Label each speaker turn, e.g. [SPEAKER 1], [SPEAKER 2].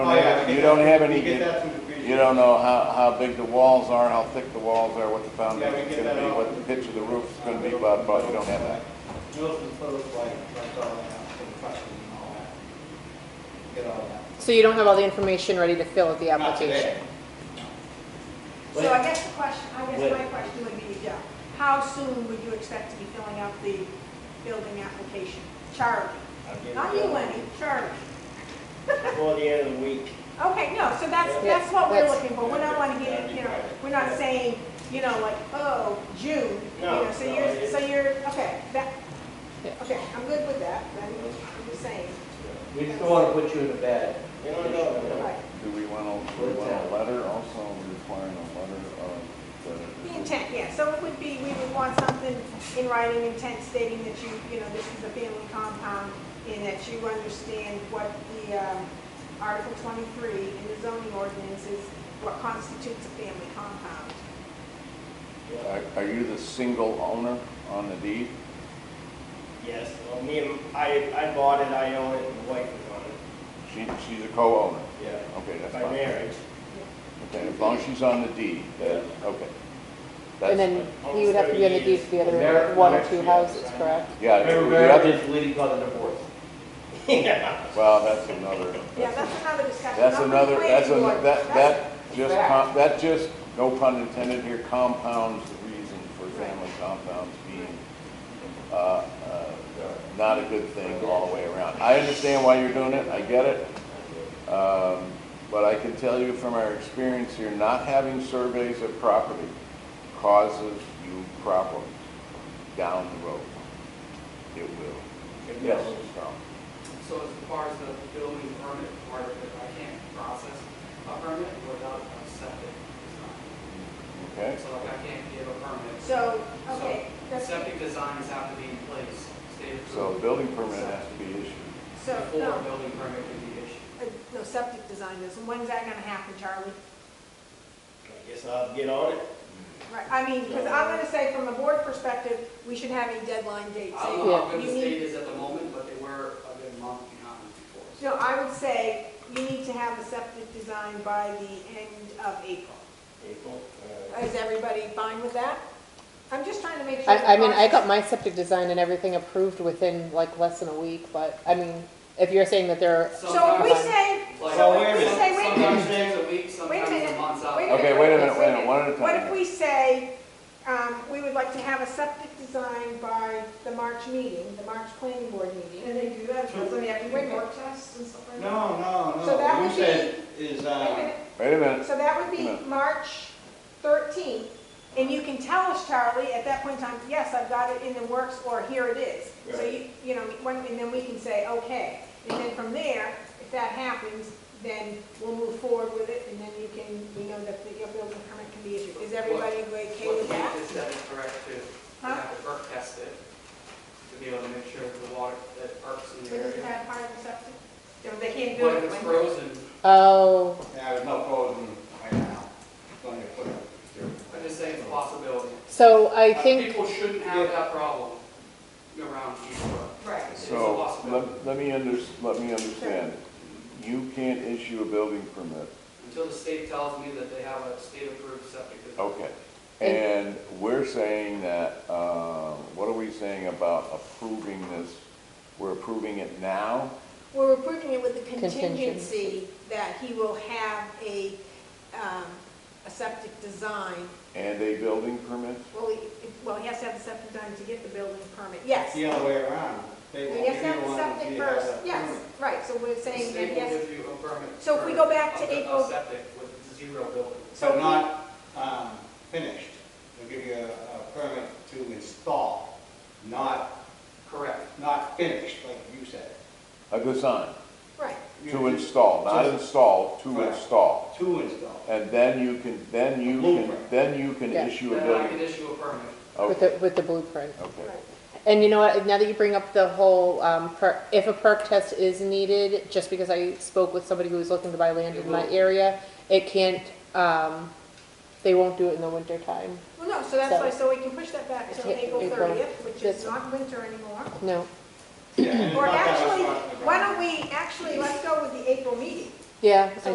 [SPEAKER 1] Oh, yeah, I
[SPEAKER 2] You
[SPEAKER 1] get
[SPEAKER 2] don't
[SPEAKER 1] that.
[SPEAKER 2] have
[SPEAKER 1] We
[SPEAKER 2] any,
[SPEAKER 1] get that from the preacher.
[SPEAKER 2] you don't know how, how big the walls are, how thick the walls are, what the
[SPEAKER 1] Yeah, we
[SPEAKER 2] foundation's
[SPEAKER 1] get
[SPEAKER 2] gonna
[SPEAKER 1] that
[SPEAKER 2] be,
[SPEAKER 1] off.
[SPEAKER 2] what the pitch of the roof's gonna be, but, but you don't have that.
[SPEAKER 1] Mills and Phillips, like, that's all I have for the question and all that. Get all that.
[SPEAKER 3] So you don't have all the information ready to fill out the
[SPEAKER 1] Not
[SPEAKER 3] application?
[SPEAKER 1] today.
[SPEAKER 4] So I guess the question, I guess my question would be, yeah, how soon would you expect to be filling out the building application? Charlie,
[SPEAKER 5] I'll get it
[SPEAKER 4] not you,
[SPEAKER 5] done
[SPEAKER 4] Lenny, Charlie.
[SPEAKER 5] Before the end of the week.
[SPEAKER 4] Okay, no, so that's,
[SPEAKER 3] Yeah,
[SPEAKER 4] that's what we're
[SPEAKER 3] that's-
[SPEAKER 4] looking for, we don't want to get, you know, we're not saying, you know, like, oh, June, you
[SPEAKER 5] No,
[SPEAKER 4] know, so
[SPEAKER 5] no,
[SPEAKER 4] you're,
[SPEAKER 5] it-
[SPEAKER 4] so you're, okay, that,
[SPEAKER 3] Yeah.
[SPEAKER 4] okay, I'm good with that, then, I'm just saying,
[SPEAKER 6] We just don't want to put you in a bad.
[SPEAKER 5] You don't know.
[SPEAKER 4] right,
[SPEAKER 2] Do we want a, do we want a letter also requiring a letter of
[SPEAKER 4] the
[SPEAKER 2] the.
[SPEAKER 4] intent, yeah, so it would be, we would want something in writing intent stating that you, you know, this is a family compound, and that you understand what the, um, Article twenty-three in the zoning ordinance is, what constitutes a family compound.
[SPEAKER 2] Are, are you the single owner on the deed?
[SPEAKER 5] Yes, well, me and, I, I bought it, I own it, my wife is on it,
[SPEAKER 2] She, she's a co-owner.
[SPEAKER 5] yeah,
[SPEAKER 2] Okay, that's
[SPEAKER 5] by
[SPEAKER 2] fine.
[SPEAKER 5] marriage.
[SPEAKER 2] Okay, as long as she's on the deed, that, okay. That's
[SPEAKER 3] And then
[SPEAKER 2] fine.
[SPEAKER 3] you would have to be on the deed for the other one or two houses, correct?
[SPEAKER 2] Yeah,
[SPEAKER 6] Remember,
[SPEAKER 2] you have
[SPEAKER 6] marriage
[SPEAKER 2] to-
[SPEAKER 6] is leading by the divorce.
[SPEAKER 5] Yeah.
[SPEAKER 2] well, that's another.
[SPEAKER 4] Yeah, that's another discussion.
[SPEAKER 2] That's
[SPEAKER 4] Not for the
[SPEAKER 2] another, that's,
[SPEAKER 4] planning
[SPEAKER 2] an-
[SPEAKER 4] board.
[SPEAKER 2] that,
[SPEAKER 4] That's-
[SPEAKER 2] that just, com- that just, no pun intended here, compounds the reason for family compounds being, uh, uh, not a good thing all the way around. I understand why you're doing it, I get it. Um, but I can tell you from our experience here, not having surveys of property causes you problems down the road. It will. Yes, Carl.
[SPEAKER 7] So as far as the building permit part of it, I can't process a permit without a septic design.
[SPEAKER 2] Okay?
[SPEAKER 7] So like I can't give a permit.
[SPEAKER 4] So, okay,
[SPEAKER 7] So
[SPEAKER 4] that's,
[SPEAKER 7] Septic designs have to be in place, state
[SPEAKER 2] So a
[SPEAKER 7] approved,
[SPEAKER 2] building permit has to be issued.
[SPEAKER 4] so,
[SPEAKER 7] before
[SPEAKER 4] no,
[SPEAKER 7] a building permit can be issued.
[SPEAKER 4] uh, no, septic design is, and when's that gonna happen, Charlie?
[SPEAKER 5] I guess I'll get on it.
[SPEAKER 4] Right, I mean, because I'm gonna say from a board perspective, we should have a deadline date.
[SPEAKER 7] I don't
[SPEAKER 4] saying
[SPEAKER 7] know how good
[SPEAKER 4] you
[SPEAKER 7] the
[SPEAKER 4] need-
[SPEAKER 7] state is at the moment, but they were a good month behind before. So
[SPEAKER 4] No, I would say you need to have a septic design by the end of April.
[SPEAKER 5] April, uh,
[SPEAKER 4] Is everybody fine with that? I'm just trying to make sure.
[SPEAKER 3] I, I mean, I got
[SPEAKER 4] the
[SPEAKER 3] my septic design and everything approved within like less than a week, but, I mean, if you're saying that there are,
[SPEAKER 4] process- So if we
[SPEAKER 7] sometimes-
[SPEAKER 4] say,
[SPEAKER 7] like,
[SPEAKER 4] so if we
[SPEAKER 5] minute.
[SPEAKER 4] say, wait a minute,
[SPEAKER 7] Sometimes it takes a week, sometimes
[SPEAKER 4] minute.
[SPEAKER 7] a month out.
[SPEAKER 4] Wait a
[SPEAKER 2] Okay, wait a minute, wait a minute, one at a time.
[SPEAKER 4] What if we say, um, we would like to have a septic design by the March meeting, the March planning board meeting?
[SPEAKER 8] And they do that, but they have to
[SPEAKER 4] Wait a
[SPEAKER 8] do
[SPEAKER 4] minute.
[SPEAKER 8] work tests and stuff like that.
[SPEAKER 1] No, no, no.
[SPEAKER 4] So that
[SPEAKER 1] You
[SPEAKER 4] would be-
[SPEAKER 1] said Is,
[SPEAKER 4] Wait a
[SPEAKER 1] uh,
[SPEAKER 4] minute.
[SPEAKER 2] Wait a minute.
[SPEAKER 4] So that would be
[SPEAKER 2] No.
[SPEAKER 4] March thirteenth, and you can tell us, Charlie, at that point in time, yes, I've got it in the works, or here it is. So
[SPEAKER 5] Right.
[SPEAKER 4] you, you know, when- and then we can say, okay, and then from there, if that happens, then we'll move forward with it, and then you can, we know that the- your building permit can be issued. Is everybody okay
[SPEAKER 7] What
[SPEAKER 4] with
[SPEAKER 7] you
[SPEAKER 4] that?
[SPEAKER 7] just said is correct too. You
[SPEAKER 4] Huh?
[SPEAKER 7] have to perk test it to be able to make sure the water, that perks in
[SPEAKER 4] But
[SPEAKER 7] the
[SPEAKER 4] Isn't
[SPEAKER 7] area.
[SPEAKER 4] that part of the septic? No, They can't do
[SPEAKER 7] But
[SPEAKER 4] it.
[SPEAKER 7] if it's
[SPEAKER 4] when-
[SPEAKER 7] frozen,
[SPEAKER 3] oh,
[SPEAKER 1] yeah, there's no frozen right now. It's only a foot up there.
[SPEAKER 7] I'm just saying it's a possibility.
[SPEAKER 3] so I
[SPEAKER 7] Uh,
[SPEAKER 3] think,
[SPEAKER 7] People shouldn't have that problem around East Brook.
[SPEAKER 4] Right.
[SPEAKER 7] It's a
[SPEAKER 2] So,
[SPEAKER 7] possibility
[SPEAKER 2] let, let me under, let me understand. You can't issue a building permit,
[SPEAKER 7] until the state tells me that they have a state-approved septic design.
[SPEAKER 2] okay. And we're saying that, uh, what are we saying about approving this? We're approving it now?
[SPEAKER 4] We're approving it with the contingency
[SPEAKER 3] Contingency.
[SPEAKER 4] that he will have a, um, a septic design
[SPEAKER 2] And a building permit?
[SPEAKER 4] Well, he, well, he has to have the septic done to get the building permit, yes.
[SPEAKER 1] The other way around. They
[SPEAKER 4] He
[SPEAKER 1] won't give
[SPEAKER 4] has to
[SPEAKER 1] you
[SPEAKER 4] have the
[SPEAKER 1] one until
[SPEAKER 4] septic
[SPEAKER 1] you have
[SPEAKER 4] first,
[SPEAKER 1] a
[SPEAKER 4] yes,
[SPEAKER 1] permit.
[SPEAKER 4] right, so we're
[SPEAKER 7] The
[SPEAKER 4] saying that,
[SPEAKER 7] state will
[SPEAKER 4] yes.
[SPEAKER 7] give you a permit.
[SPEAKER 4] So if we go back to
[SPEAKER 7] of the- of
[SPEAKER 4] April-
[SPEAKER 7] septic with zero building.
[SPEAKER 4] So
[SPEAKER 1] But
[SPEAKER 4] we-
[SPEAKER 1] not, um, finished. They'll give you a, a permit to install, not,
[SPEAKER 7] Correct.
[SPEAKER 1] not finished, like you said.
[SPEAKER 2] A design,
[SPEAKER 4] Right,
[SPEAKER 1] You-
[SPEAKER 2] to install, not install, to
[SPEAKER 1] Correct.
[SPEAKER 2] install.
[SPEAKER 1] To install.
[SPEAKER 2] And then you can, then you can,
[SPEAKER 1] Blueprint.
[SPEAKER 2] then you can
[SPEAKER 3] Yeah.
[SPEAKER 2] issue a
[SPEAKER 7] Then I can
[SPEAKER 2] building.
[SPEAKER 7] issue a permit.
[SPEAKER 3] with
[SPEAKER 2] Okay,
[SPEAKER 3] the, with the blueprint.
[SPEAKER 2] okay.
[SPEAKER 4] right.
[SPEAKER 3] And you know what, now that you bring up the whole, um, per, if a perk test is needed, just because I spoke with somebody who was looking to buy land in my area, it can't, um, they won't do it in the winter time.
[SPEAKER 4] Well, no, so that's
[SPEAKER 3] So-
[SPEAKER 4] why, so we can push that back till
[SPEAKER 3] Yeah,
[SPEAKER 4] April
[SPEAKER 3] April.
[SPEAKER 4] thirtieth, which is
[SPEAKER 3] That's-
[SPEAKER 4] not winter anymore.
[SPEAKER 3] No,
[SPEAKER 1] Yeah, and it's
[SPEAKER 4] Or
[SPEAKER 1] not that much
[SPEAKER 4] actually,
[SPEAKER 1] farther
[SPEAKER 4] why
[SPEAKER 1] down.
[SPEAKER 4] don't we, actually, let's go with the April meeting.
[SPEAKER 3] Yeah, I